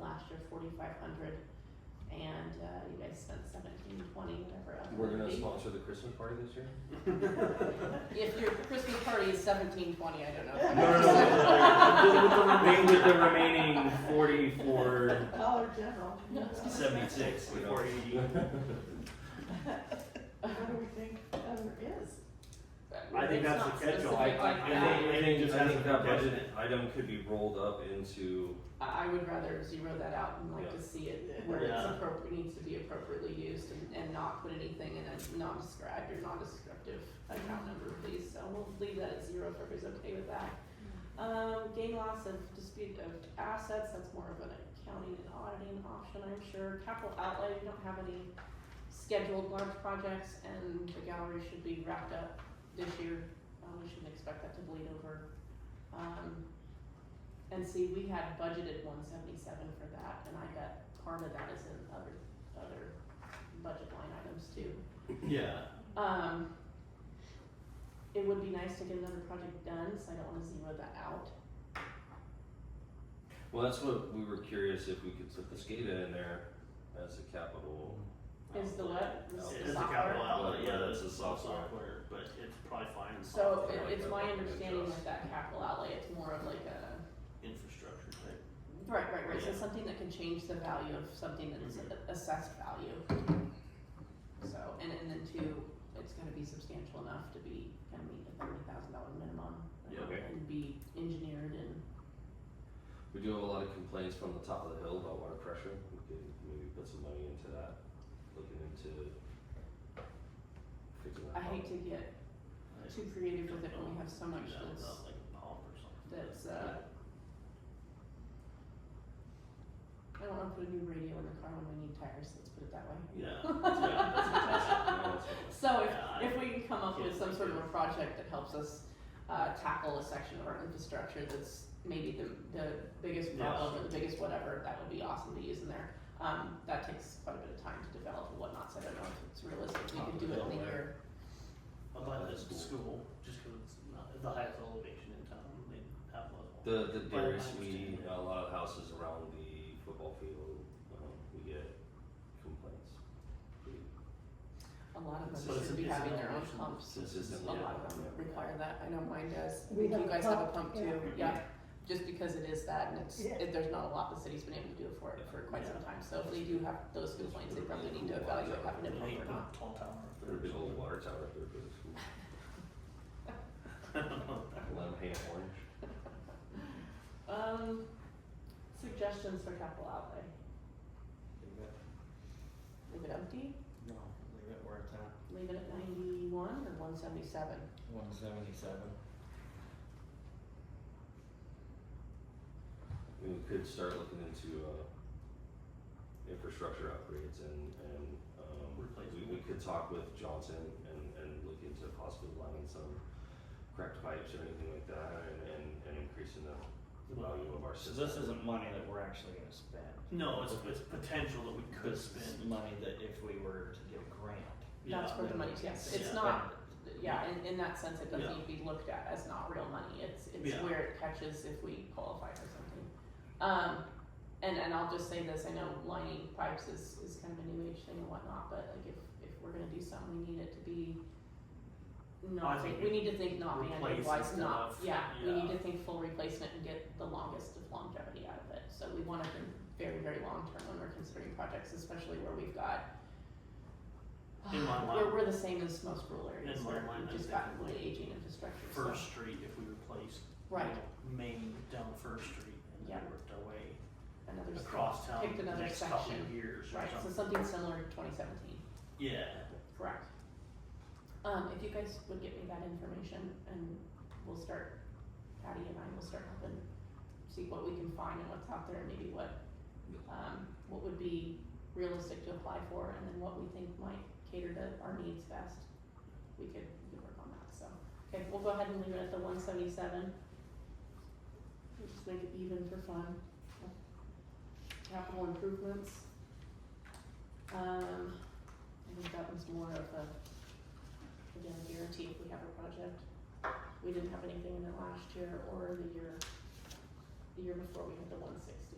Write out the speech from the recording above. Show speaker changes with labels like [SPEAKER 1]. [SPEAKER 1] last year forty-five hundred, and, uh, you guys spent seventeen, twenty, whatever else. it
[SPEAKER 2] We're
[SPEAKER 1] might
[SPEAKER 2] gonna
[SPEAKER 1] be.
[SPEAKER 2] sponsor the Christmas party this year?
[SPEAKER 1] If your Christmas party is seventeen, twenty, I don't know.
[SPEAKER 3] No, no, no, with the- with the remain, with the remaining forty-four,
[SPEAKER 4] Dollar General.
[SPEAKER 3] seventy-six,
[SPEAKER 2] You know.
[SPEAKER 3] before you,
[SPEAKER 4] What do we think other is?
[SPEAKER 3] I
[SPEAKER 1] It's
[SPEAKER 3] think that's
[SPEAKER 1] not
[SPEAKER 3] the catch-all.
[SPEAKER 1] specific
[SPEAKER 2] I,
[SPEAKER 1] like
[SPEAKER 2] I
[SPEAKER 1] that.
[SPEAKER 2] think, I
[SPEAKER 3] It
[SPEAKER 2] think,
[SPEAKER 3] just
[SPEAKER 2] I think
[SPEAKER 3] hasn't
[SPEAKER 2] that
[SPEAKER 3] been
[SPEAKER 2] budget item could be rolled up into,
[SPEAKER 1] I I would rather zero that out and like to see it where it's
[SPEAKER 3] Yeah.
[SPEAKER 1] appropri- needs to be appropriately used and, and not put anything in a non-described or non-descriptive account number, please, so we'll leave that at zero if everybody's okay with that. Um, gain loss of dispute of assets, that's more of an accounting and auditing option, I'm sure, capital outlay, we don't have any scheduled large projects, and the gallery should be wrapped up this year, uh, we shouldn't expect that to bleed over. Um, and see, we had budgeted one seventy-seven for that, and I bet part of that is in other, other budget line items too.
[SPEAKER 3] yeah.
[SPEAKER 1] Um, it would be nice to get another project done, so I don't wanna zero that out.
[SPEAKER 2] well, that's what we were curious if we could put the SCADA in there as a capital.
[SPEAKER 1] Is the what? The
[SPEAKER 2] Outlet.
[SPEAKER 3] It is a
[SPEAKER 1] software?
[SPEAKER 3] capital outlet,
[SPEAKER 2] Well,
[SPEAKER 3] yeah,
[SPEAKER 2] yeah, it's
[SPEAKER 3] that's a
[SPEAKER 2] a software.
[SPEAKER 3] software, but it's probably fine in
[SPEAKER 1] So
[SPEAKER 3] software,
[SPEAKER 1] it,
[SPEAKER 3] like
[SPEAKER 1] it's
[SPEAKER 2] that
[SPEAKER 1] my
[SPEAKER 2] one,
[SPEAKER 1] understanding
[SPEAKER 2] adjust.
[SPEAKER 1] with that capital outlay, it's more of like a,
[SPEAKER 3] infrastructure type.
[SPEAKER 1] right, right, right, so
[SPEAKER 3] Yeah.
[SPEAKER 1] something that can change the value of something that's
[SPEAKER 3] Mhm.
[SPEAKER 1] a- assessed value. So, and, and then two, it's gonna be substantial enough to be, kind of meet the thirty thousand dollar minimum. Um,
[SPEAKER 3] Yeah,
[SPEAKER 2] okay.
[SPEAKER 1] And be engineered and,
[SPEAKER 2] We do have a lot of complaints from the top of the hill about water pressure, we could maybe put some money into that, looking into fixing that
[SPEAKER 1] I hate to get
[SPEAKER 3] Nice.
[SPEAKER 1] too creative with it when we have so much
[SPEAKER 3] Do that
[SPEAKER 1] that's,
[SPEAKER 3] without, like a pump or something.
[SPEAKER 1] that's, uh. I don't wanna put a new radio in the car when we need tires, let's put it that way.
[SPEAKER 3] Yeah, yeah, that's fantastic.
[SPEAKER 2] problem. Yeah, that's-
[SPEAKER 1] So
[SPEAKER 3] Yeah,
[SPEAKER 1] if, if we can come up with
[SPEAKER 3] yeah,
[SPEAKER 1] some sort of a
[SPEAKER 3] yeah.
[SPEAKER 1] project that helps us, uh, tackle a section of our infrastructure that's maybe the, the biggest
[SPEAKER 3] Yeah.
[SPEAKER 1] problem or the biggest whatever, that would be awesome to use in there. Um, that takes quite a bit of time to develop and whatnot, so I don't know if it's realistic, we
[SPEAKER 3] Top
[SPEAKER 1] could
[SPEAKER 3] of
[SPEAKER 1] do it in a year.
[SPEAKER 3] Delaware. I
[SPEAKER 2] Oh,
[SPEAKER 3] thought
[SPEAKER 2] that's
[SPEAKER 3] this
[SPEAKER 2] cool.
[SPEAKER 3] school, just cause it's not, it's the highest elevation in town, they have level.
[SPEAKER 2] The the
[SPEAKER 3] But I
[SPEAKER 2] dearest we
[SPEAKER 3] understand.
[SPEAKER 2] a lot of houses around the football field, um, we get complaints. pretty
[SPEAKER 1] A lot of them
[SPEAKER 2] But it's
[SPEAKER 1] should
[SPEAKER 3] a-
[SPEAKER 1] be
[SPEAKER 3] it's an
[SPEAKER 1] having their own
[SPEAKER 3] elevation
[SPEAKER 1] pumps, a
[SPEAKER 2] Consistently.
[SPEAKER 1] lot of them require that, I know mine does,
[SPEAKER 4] We
[SPEAKER 1] you
[SPEAKER 4] have a
[SPEAKER 1] guys have a
[SPEAKER 4] pump,
[SPEAKER 1] pump too, yeah.
[SPEAKER 4] yeah.
[SPEAKER 1] Just because it is that and it's,
[SPEAKER 4] Yeah.
[SPEAKER 1] it, there's not a lot the city's been able to do it for, for quite some time, so if they do have those complaints, they probably need to evaluate having a
[SPEAKER 3] They
[SPEAKER 1] pump
[SPEAKER 3] hate
[SPEAKER 1] or not.
[SPEAKER 3] the tall tower up
[SPEAKER 2] There's a
[SPEAKER 3] there.
[SPEAKER 2] big old water tower up there for the school. Lime ham orange.
[SPEAKER 1] Um, suggestions for capital outlay, leave it empty,
[SPEAKER 5] No, leave it where it's at,
[SPEAKER 1] leave it at ninety-one or one seventy-seven?
[SPEAKER 5] one seventy-seven.
[SPEAKER 2] I mean, we could start looking into uh infrastructure upgrades and and um we we
[SPEAKER 3] Replacement.
[SPEAKER 2] could talk with Johnson and and look into possibly lining some cracked pipes or anything like that and and and increasing the the value of our
[SPEAKER 5] So
[SPEAKER 2] system.
[SPEAKER 5] this isn't money that we're actually gonna spend.
[SPEAKER 3] No, it's, it's potential that we could
[SPEAKER 5] This is
[SPEAKER 3] spend,
[SPEAKER 5] money that if we were to get a grant.
[SPEAKER 3] yeah.
[SPEAKER 1] That's where the
[SPEAKER 5] then we
[SPEAKER 1] money's,
[SPEAKER 5] can
[SPEAKER 1] yes, it's
[SPEAKER 5] spend
[SPEAKER 1] not,
[SPEAKER 5] it.
[SPEAKER 1] yeah, in, in that sense, it doesn't
[SPEAKER 3] Yeah.
[SPEAKER 1] need to be looked at as not real money, it's, it's
[SPEAKER 3] Yeah.
[SPEAKER 1] where it catches if we qualify for something. Um, and, and I'll just say this, I know lining pipes is, is kind of a new age thing and whatnot, but like if, if we're gonna do something, we need it to be
[SPEAKER 3] I
[SPEAKER 1] not,
[SPEAKER 3] think
[SPEAKER 1] we need to think not
[SPEAKER 3] replace
[SPEAKER 1] banded wise,
[SPEAKER 3] and
[SPEAKER 1] not,
[SPEAKER 3] stuff,
[SPEAKER 1] yeah, we need to
[SPEAKER 3] yeah.
[SPEAKER 1] think full replacement and get the longest of longevity out of it, so we wanna think very, very long term when we're considering projects, especially where we've got
[SPEAKER 3] In my mind-
[SPEAKER 1] We're, we're the same as most rural areas,
[SPEAKER 3] In my
[SPEAKER 1] where we've
[SPEAKER 3] mind, I
[SPEAKER 1] just
[SPEAKER 3] think
[SPEAKER 1] got really
[SPEAKER 3] like
[SPEAKER 1] aging infrastructure, so.
[SPEAKER 3] First Street if we replaced.
[SPEAKER 1] Right,
[SPEAKER 3] Main down First Street and then
[SPEAKER 1] Yeah.
[SPEAKER 3] worked our way
[SPEAKER 1] another, s-
[SPEAKER 3] across town
[SPEAKER 1] picked
[SPEAKER 3] the
[SPEAKER 1] another
[SPEAKER 3] next couple
[SPEAKER 1] section.
[SPEAKER 3] of years or
[SPEAKER 1] right, so something
[SPEAKER 3] something.
[SPEAKER 1] similar to twenty seventeen,
[SPEAKER 3] Yeah,
[SPEAKER 1] correct. Um, if you guys would get me that information and we'll start, Patty and I will start helping see what we can find and what's out there and maybe what, um, what would be realistic to apply for and then what we think might cater to our needs best. We could, we could work on that, so, okay, we'll go ahead and leave it at the one seventy-seven. We'll just make it even for fun. Capital improvements. Um, I think that was more of a, again, guarantee if we have a project. We didn't have anything in the last year or the year, the year before, we had the one sixty.